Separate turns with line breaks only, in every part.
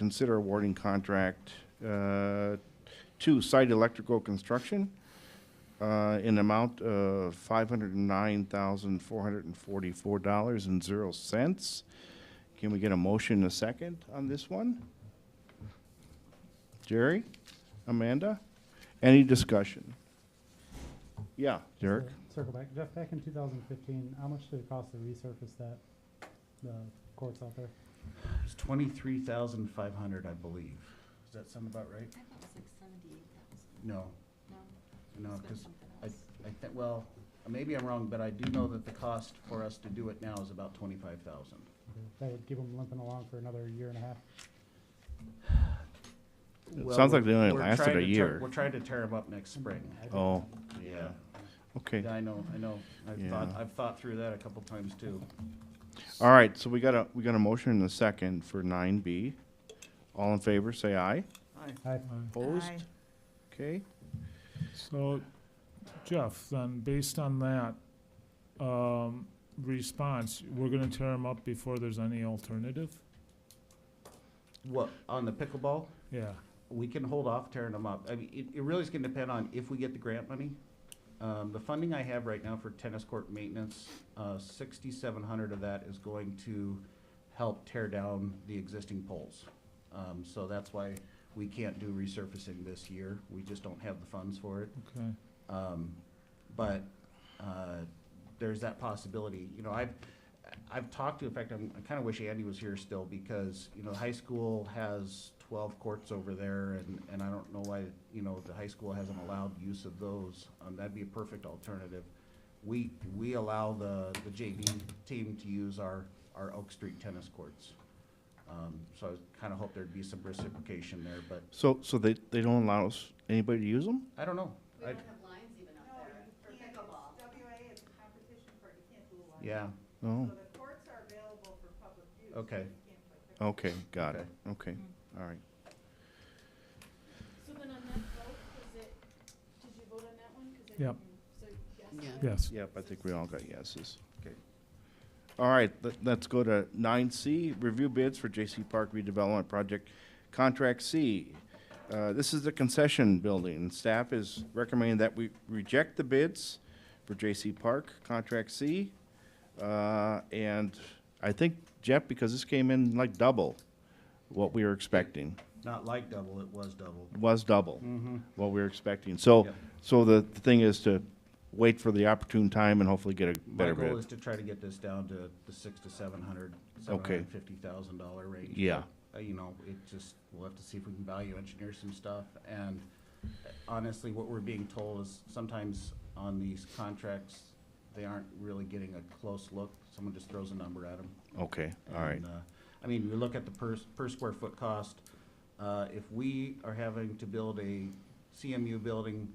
consider awarding contract uh, to Site Electrical Construction uh, in amount of $509,444.00. Can we get a motion and a second on this one? Jerry? Amanda? Any discussion? Yeah, Derek?
Cir- Circle back, Jeff, back in two thousand fifteen, how much did it cost to resurface that, the courts out there?
It's twenty-three thousand five hundred, I believe. Does that sound about right?
I thought it was like seventy-eight thousand,
No,
no?
no,
It's been
because
something
I,
else.
I think, well, maybe I'm wrong, but I do know that the cost for us to do it now is about twenty-five thousand.
That would keep them limping along for another year and a half.
It sounds like they only lasted a year.
We're trying to tear them up next spring.
Oh,
Yeah,
okay.
Yeah, I know, I know. I've thought,
Yeah.
I've thought through that a couple times too.
All right, so we got a, we got a motion and a second for nine B. All in favor, say aye.
Aye.
I,
Opposed? Okay,
So, Jeff, then, based on that, um, response, we're gonna tear them up before there's any alternative?
What, on the pickleball?
Yeah,
we can hold off tearing them up. I mean, it, it really is gonna depend on if we get the grant money. Um, the funding I have right now for tennis court maintenance, uh, sixty-seven hundred of that is going to help tear down the existing poles. Um, so that's why we can't do resurfacing this year. We just don't have the funds for it.
okay.
Um, but, uh, there's that possibility, you know, I've, I've talked to, in fact, I'm, I kinda wish Andy was here still, because, you know, the high school has twelve courts over there, and, and I don't know why, you know, the high school hasn't allowed use of those, um, that'd be a perfect alternative. We, we allow the, the JV team to use our, our Oak Street tennis courts. Um, so I kinda hope there'd be some reciprocation there, but
so, so they, they don't allow us, anybody to use them?
I don't know.
We
I-
don't have lines even up there for pickleball.
WA is a competition for, you can't do a lot.
Yeah,
No?
So the courts are available for public use. but you
Okay.
can't play pickleball.
Okay, got it, okay, all right.
So then on that vote, is it, did you vote on that one? 'Cause I
Yep.
didn't- So yes.
Yeah.
on
Yes,
Yep, I think we all got yeses.
Okay.
All right, let, let's go to nine C, review bids for JC Park redevelopment project, contract C. Uh, this is the concession building, staff is recommending that we reject the bids for JC Park, contract C. Uh, and I think, Jeff, because this came in like double what we were expecting,
not like double, it was double.
It was double
Mm-hmm.
what we were expecting. So,
Yep.
so the thing is to wait for the opportune time and hopefully get a
My
better bid.
goal is to try to get this down to the six to seven hundred, seven hundred and fifty thousand dollar range.
Yeah.
Uh, You know, it just, we'll have to see if we can value engineer some stuff, and honestly, what we're being told is sometimes on these contracts, they aren't really getting a close look, someone just throws a number at them.
Okay, all right.
And, uh, I mean, you look at the per, per square foot cost, uh, if we are having to build a CMU building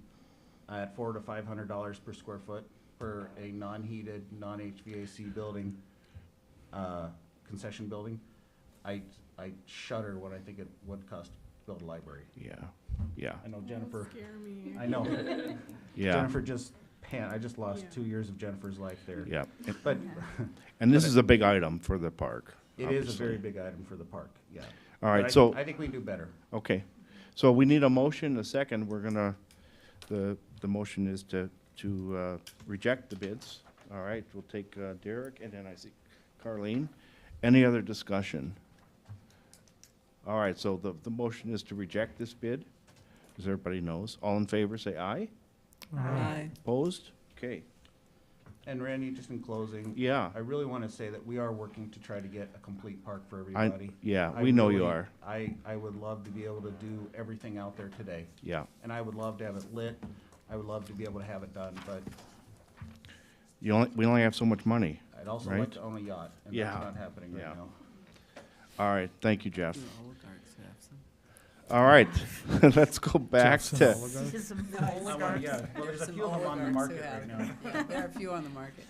at four to five hundred dollars per square foot for a non-heated, non-HVAC building, uh, concession building, I, I shudder when I think it would cost to build a library.
Yeah, yeah,
I know Jennifer,
Scare me.
I know,
yeah,
Jennifer just pan, I just lost
Yeah.
two years of Jennifer's life there.
yeah.
But
And this is a big item for the park.
it is a very
obviously.
big item for the park, yeah.
All
But I-
right, so,
I think we do better.
okay. So we need a motion, a second. We're gonna, the, the motion is to, to uh, reject the bids. All right, we'll take uh, Derek and then I see Carleen. Any other discussion? All right, so the, the motion is to reject this bid, as everybody knows. All in favor, say aye. Opposed? Okay,
And Randy, just in closing,
yeah.
I really want to say that we are working to try to get a complete park for
I,
everybody.
yeah,
I
we know you
really-
are.
I, I would love to be able to do everything out there today,
Yeah.
and I would love to have it lit, I would love to be able to have it done, but
You only, we only have so much money.
I'd also like
Right.
to own a yacht, and
Yeah.
that's not happening
Yeah.
right now.
All right, thank you, Jeff. All right, let's go back
Jeff's an
to,
oligarch.
I wanna- yeah, well, there's a few of them on the market right now.
There are a few on the market.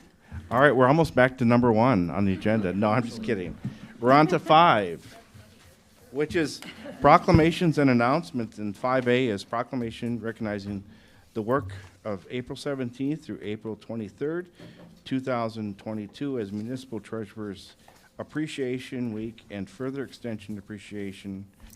all right, we're almost back to number one on the agenda. No, I'm just kidding. We're on to five, which is proclamations and announcements. And five A is proclamation recognizing the work of April seventeenth through April twenty-third, two thousand twenty-two as Municipal Treasurers Appreciation Week and further extension appreciation